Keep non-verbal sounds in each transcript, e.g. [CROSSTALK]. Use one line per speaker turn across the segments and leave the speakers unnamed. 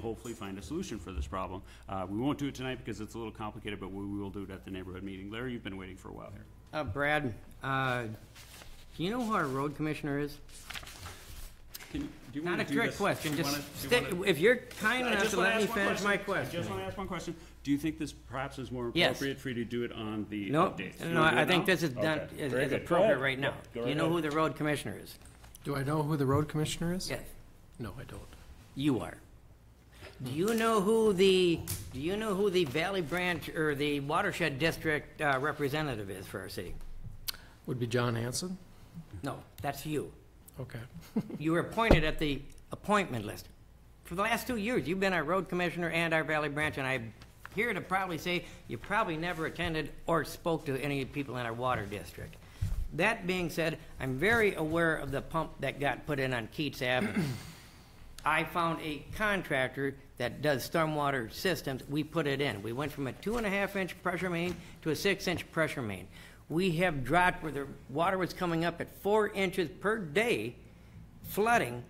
hopefully find a solution for this problem. Uh, We won't do it tonight because it's a little complicated, but we will do it at the neighborhood meeting. Larry, you've been waiting for a while here.
Uh, Brad, uh, do you know who our road commissioner is?
Can, do you want
Not
to do
a
this?
trick question,
Do you
just
wanna- do you
stick,
wanna-
if you're kind
I
enough
just
to
wanna
let me
ask one
finish my
I just
question.
want to ask one question. Do you think this perhaps is more
Yes.
appropriate for you to do it on the
No,
updates? You
no,
wanna do
I
it
think
now?
this is done,
Okay.
is
Very
is
good. Go
appropriate
ahead.
right now.
Go
Do you
right
know who
ahead.
the road commissioner is?
Do I know who the road commissioner is?
Yes,
No, I don't.
you are. Do you know who the, do you know who the Valley Branch or the Watershed District uh, representative is for our city?
Would be John Hanson?
No, that's you.
Okay.
You were appointed at the appointment list. For the last two years, you've been our road commissioner and our Valley Branch, and I'm here to probably say you probably never attended or spoke to any people in our water district. That being said, I'm very aware of the pump that got put in on Keats Avenue. I found a contractor that does stormwater systems, we put it in. We went from a two and a half inch pressure main to a six inch pressure main. We have dropped where the water was coming up at four inches per day flooding.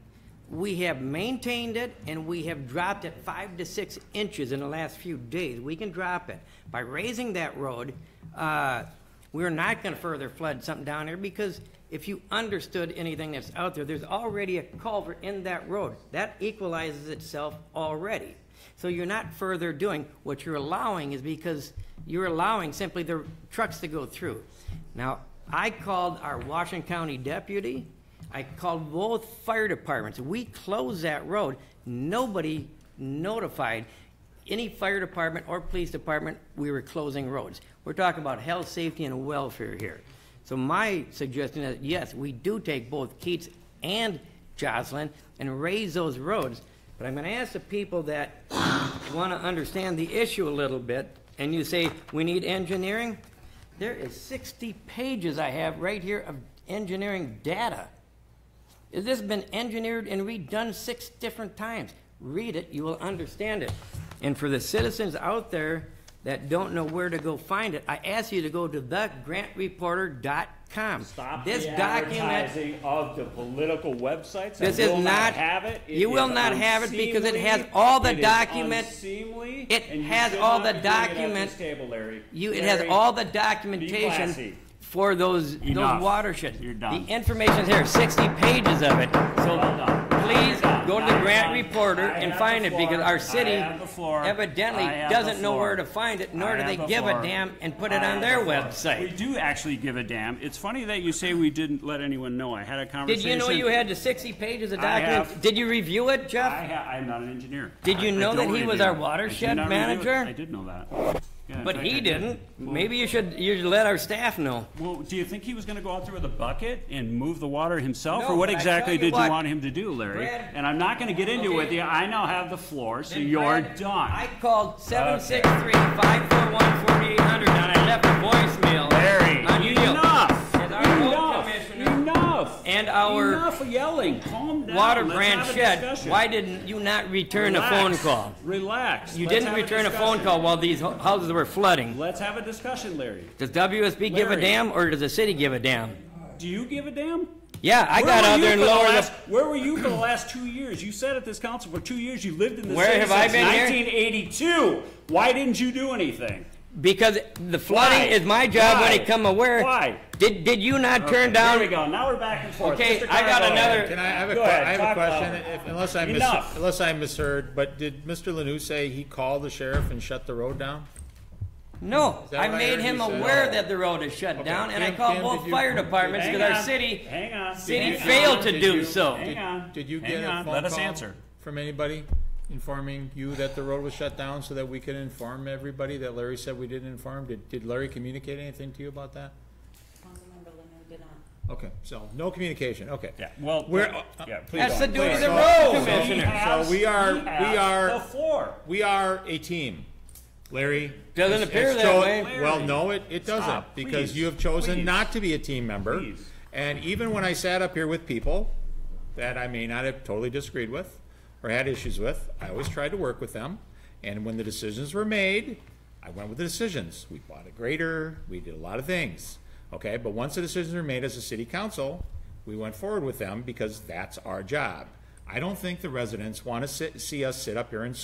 We have maintained it and we have dropped it five to six inches in the last few days. We can drop it. By raising that road, uh, we're not gonna further flood something down there because if you understood anything that's out there, there's already a culvert in that road. That equalizes itself already. So you're not further doing, what you're allowing is because you're allowing simply the trucks to go through. Now, I called our Washington County deputy, I called both fire departments, we closed that road, nobody notified any fire department or police department, we were closing roads. We're talking about health, safety, and welfare here. So my suggestion is, yes, we do take both Keats and Jocelyn and raise those roads, but I'm gonna ask the people that [COUGHS] wanna understand the issue a little bit, and you say, we need engineering? There is sixty pages I have right here of engineering data. This has been engineered and redone six different times. Read it, you will understand it. And for the citizens out there that don't know where to go find it, I ask you to go to thegrantreporter.com.
Stop
This
the
document,
advertising of the political websites.
This
I
is
will
not-
have it. It
you
is
will not have it because it has
unseemly.
all the
It is
document-
unseemly,
it
and you
has
should
all
not
the
be doing it at
document-
this Table, Larry.
you, it has
Larry,
all the
classy.
documentation for those,
Enough.
those watersheds.
You're done.
The information's here, sixty pages of it. So
Well done.
please go to the
I
Grant
have-
Reporter
I
and
have
find
the
it because
floor.
our
I
city
have the floor.
evidently
I have
doesn't
the
know
floor.
where to find it, nor
I
do they
have the
give a
floor.
damn and put it
I
on
have
their
the floor. We
website.
do actually give a damn. It's funny that you say we didn't let anyone know. I had a
Did
conversation.
you know you had the sixty pages of
I have-
documents? Did you review it,
I
Jeff?
ha, I'm not an engineer.
Did you
I- I
know that
don't
he was
review.
our
I did
watershed
not review it.
manager?
I did know that. Yeah, in
But
fact, I
he
did.
didn't.
Well-
Maybe you should, you should let our staff know.
Well, do you think he was going to go out there with a bucket and move the water himself,
No,
or what
but I
exactly
tell you
did
what,
you want him to do, Larry?
Brad-
and I'm not going to get into it with
Okay.
you. I now have the floor, so
Then
you're
Brad,
done.
I called 763-541-4800 and I left a voicemail.
Larry,
on you.
enough!
As our road
Enough!
commissioner
Enough!
And our-
Enough yelling, calm down.
Water
Let's
branch
have a
shed,
discussion.
why didn't you not return a phone
Relax.
call?
Relax.
You
Let's
didn't
have
return a phone
discussion.
call while these ho- houses were flooding.
Let's have a discussion, Larry.
Does WSB give a
Larry.
damn or does the city give a damn?
Do you give a damn?
Yeah, I
Where
got
were
out
you
there and
for the
lowered the-
last- Where were you for the last two years? You sat at this council for two years. You lived in this
Where
city
have I
since
been here?
1982. Why didn't you do anything?
Because the flooding
Why?
is my job when
Why?
it come aware.
Why?
Did, did you not turn
There
down?
we go. Now we're back and forth.
Okay,
Mr.
I got
Carbo.
another-
Can I have a,
Go
que-
ahead,
I have
talk
a question,
about
if, unless I mis-
Enough.
unless I misheard, but did Mr. Lanou say he called the sheriff and shut the road down?
No,
that
I
what I
made
heard
him
you say?
uh,
aware that the road is shut down and I
Kim-
called
Kim,
both
did you-
fire departments
Hang
because our
on.
city,
Hang on.
city
Hang on.
failed to
Did
do
you-
so.
Hang on.
Did you
Hang
get a
on.
phone
Let us
call
answer.
From anybody informing you that the road was shut down so that we could inform everybody that Larry said we didn't inform? Did, did Larry communicate anything to you about that?
Councilmember Leonard did not.
Okay, so no communication, okay.
Yeah, well,
We're, uh,
yeah, please
That's the
don't.
duty of the
So-
road
so-
commissioner.
So we are,
He has
we are.
the floor.
We are a team. Larry.
Doesn't
it's-
appear
it's
that
Joe-
way.
Well, no, it, it
Stop,
doesn't, because
please,
you have chosen
please,
not to be a team member.
please.
And even when I sat up here with people that I may not have totally disagreed with or had issues with, I always tried to work with them. And when the decisions were made, I went with the decisions. We bought a grader, we did a lot of things, okay? But once the decisions were made as a city council, we went forward with them because that's our job. I don't think the residents want to sit, see us sit up here and